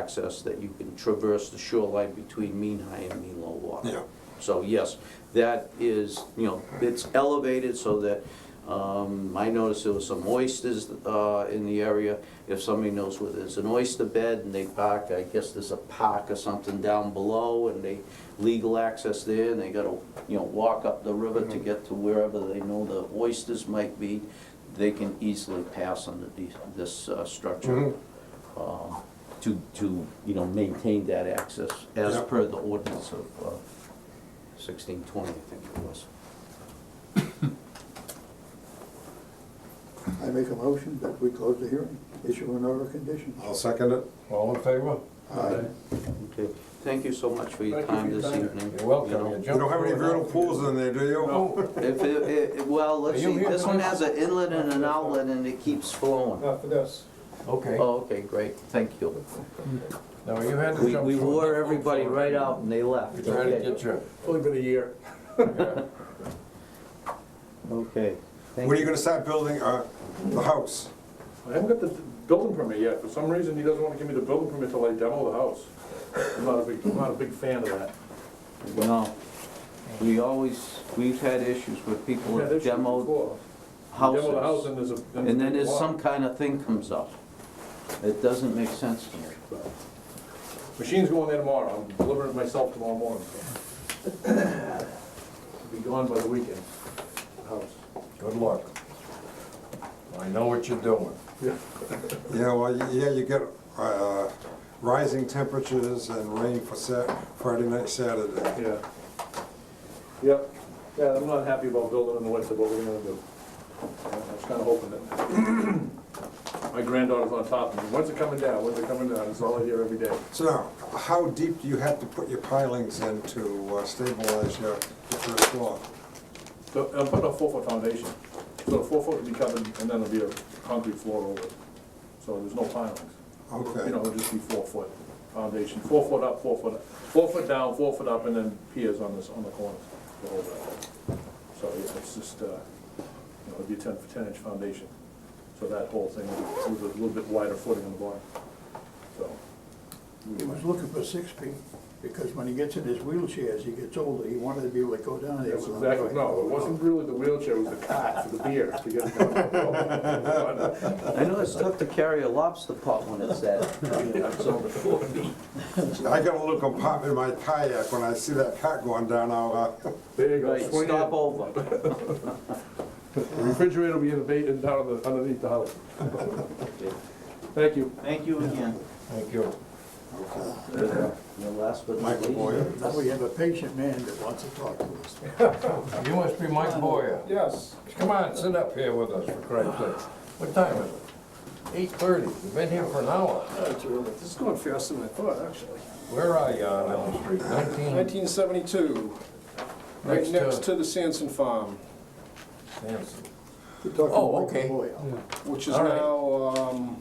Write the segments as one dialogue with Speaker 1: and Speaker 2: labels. Speaker 1: access that you can traverse the shoreline between mean high and mean low water.
Speaker 2: Yeah.
Speaker 1: So yes, that is, you know, it's elevated so that, um, I noticed there was some oysters, uh, in the area. If somebody knows where there's an oyster bed and they park, I guess there's a park or something down below and they legal access there and they gotta, you know, walk up the river to get to wherever they know the oysters might be, they can easily pass under the, this, uh, structure.
Speaker 2: Mhm.
Speaker 1: um, To, to, you know, maintain that access as
Speaker 2: Yep.
Speaker 1: per the ordinance of, uh, sixteen twenty, I think it was.
Speaker 3: I make a motion that we close the hearing, issue an order of condition.
Speaker 2: I'll second it. All in favor?
Speaker 3: Aye.
Speaker 1: Okay, thank you so much for your
Speaker 4: Thank you for
Speaker 1: time
Speaker 4: your
Speaker 1: this
Speaker 4: time.
Speaker 1: evening.
Speaker 4: You're welcome.
Speaker 1: you know.
Speaker 4: You
Speaker 2: You don't have any vernal pools in there, do you?
Speaker 4: No.
Speaker 1: If, it- it- well, let's
Speaker 4: Are you
Speaker 1: see,
Speaker 4: here
Speaker 1: this one
Speaker 4: tonight?
Speaker 1: has an inlet and an outlet and it keeps flowing.
Speaker 4: Not for this. Okay.
Speaker 1: Oh, okay, great, thank you.
Speaker 4: Now, you had to
Speaker 1: We,
Speaker 4: jump.
Speaker 1: we
Speaker 4: from-
Speaker 1: wore everybody right out and they left.
Speaker 4: Trying to
Speaker 1: Okay.
Speaker 4: get you. Only been a year.
Speaker 1: Okay. Thank
Speaker 2: When are you gonna start building, uh, the house?
Speaker 5: I haven't got the building permit yet. For some reason, he doesn't want to give me the building permit till I demo the house. I'm not a big, I'm not a big fan of that.
Speaker 1: No, we always, we've had issues with people
Speaker 5: Yeah,
Speaker 1: that
Speaker 5: they've seen it
Speaker 1: demoed
Speaker 5: before. Demo the house
Speaker 1: houses.
Speaker 5: and there's a.
Speaker 1: And then there's
Speaker 5: there's a
Speaker 1: some
Speaker 5: lot.
Speaker 1: kind of thing comes up. It doesn't make sense to me.
Speaker 5: Machine's going there tomorrow. I'm delivering it myself tomorrow morning. so. It'll Be gone by the weekend, the house.
Speaker 4: Good luck. I know what you're doing.
Speaker 5: Yeah.
Speaker 2: Yeah, well, y- yeah, you get, uh, rising temperatures and rain for Sat, Friday night, Saturday.
Speaker 5: Yeah. Yep. Yeah, I'm not happy about building in the winter, but we're gonna do. I was kinda hoping that. My granddaughter's on top of me. When's it coming down? When's it coming down? It's all I hear every day.
Speaker 2: So now, how deep do you have to put your pilings in to uh, stabilize your, your first floor?
Speaker 5: So I'm putting a four-foot foundation, so the four-foot will be covered, and then there'll be a concrete floor over it, so there's no pilings.
Speaker 2: Okay.
Speaker 5: You know, it'll just be four-foot foundation, four foot up, four foot, four foot down, four foot up, and then piers on this, on the corners. to hold that. So, yeah, it's just, uh, you know, it'll be a ten, ten-inch foundation, so that whole thing will be with a little bit wider footing on the bottom, so.
Speaker 3: He was looking for six feet, because when he gets in his wheelchair, as he gets older, he wanted to be able to go down there.
Speaker 5: That's exactly, no, it wasn't really the wheelchair, it was the cot for the beer to get it down.
Speaker 1: I know it's tough to carry a lobster pot when it's that, it's over four feet.
Speaker 2: I got a little compartment in my kayak when I see that cat going down, I'll, uh,
Speaker 5: There you go.
Speaker 1: Right,
Speaker 5: swing
Speaker 1: stop
Speaker 5: in.
Speaker 1: over.
Speaker 5: The refrigerator will be in the bay and down on the- underneath the house. Thank you.
Speaker 1: Thank you again.
Speaker 4: Thank you.
Speaker 1: And last but not
Speaker 2: Michael
Speaker 1: least.
Speaker 2: Boyer.
Speaker 3: Now we have a patient man that wants to talk to us.
Speaker 4: You must be Mike Boyer.
Speaker 5: Yes.
Speaker 4: Come on, sit up here with us, for Christ's sake. What time is it? Eight thirty. You've been here for an hour.
Speaker 6: This is going faster than I thought, actually.
Speaker 4: Where are you on Elm Street? Nineteen?
Speaker 6: 1972, right
Speaker 4: Hmm. Next to-
Speaker 6: next to the Sanson Farm,
Speaker 4: Sampson.
Speaker 3: We're talking
Speaker 4: Oh,
Speaker 3: Michael
Speaker 4: okay.
Speaker 3: Boyle.
Speaker 6: which is
Speaker 4: All right.
Speaker 6: now um,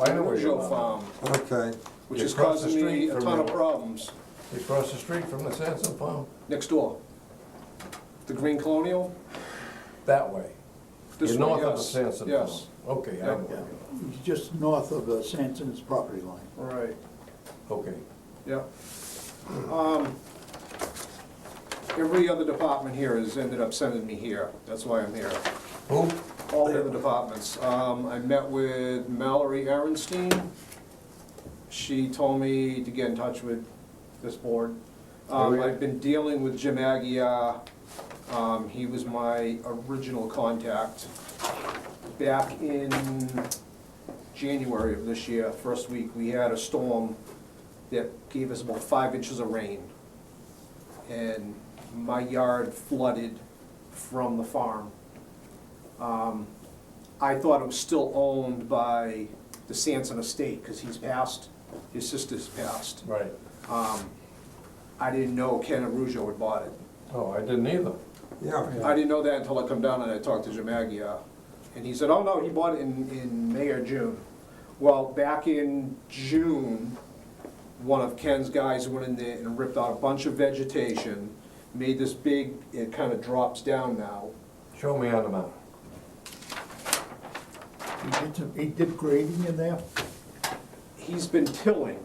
Speaker 4: I know where you
Speaker 6: Rougeau
Speaker 4: are.
Speaker 6: Farm,
Speaker 2: okay.
Speaker 6: which
Speaker 4: You
Speaker 6: is
Speaker 4: cross the
Speaker 6: causing me
Speaker 4: street
Speaker 6: a
Speaker 4: from
Speaker 6: ton of
Speaker 4: the-
Speaker 6: problems.
Speaker 4: You cross the street from the Sampson Farm?
Speaker 6: Next door. The Green Colonial,
Speaker 4: That way.
Speaker 6: this
Speaker 4: You're
Speaker 6: way,
Speaker 4: north of the
Speaker 6: yes,
Speaker 4: Sampson Farm?
Speaker 6: Yes,
Speaker 4: Okay, I know. where you are.
Speaker 3: He's just north of uh, Sanson's property line.
Speaker 6: right,
Speaker 4: Okay.
Speaker 6: yeah. Um, Every other department here has ended up sending me here, that's why I'm here.
Speaker 4: Who?
Speaker 6: all the other departments. Um, I met with Mallory Aaronstein. She told me to get in touch with this board. Um, I've been dealing with Jim Agia. Um, he was my original contact back in January of this year, first week. We had a storm that gave us about five inches of rain. And my yard flooded from the farm. Um, I thought it was still owned by the Sanson estate, because he's passed, his sister's passed.
Speaker 4: Right.
Speaker 6: Um, I didn't know Ken Arujo had bought it.
Speaker 4: Oh, I didn't either.
Speaker 2: Yeah,
Speaker 6: I didn't know that until I come down and I talked to Jim Agia. And he said, oh, no, he bought it in, in May or June. Well, back in June, one of Ken's guys went in there and ripped out a bunch of vegetation, made this big, it kind of drops down now.
Speaker 4: Show me on the map.
Speaker 3: He did some, he did grading in there?
Speaker 6: He's been tilling.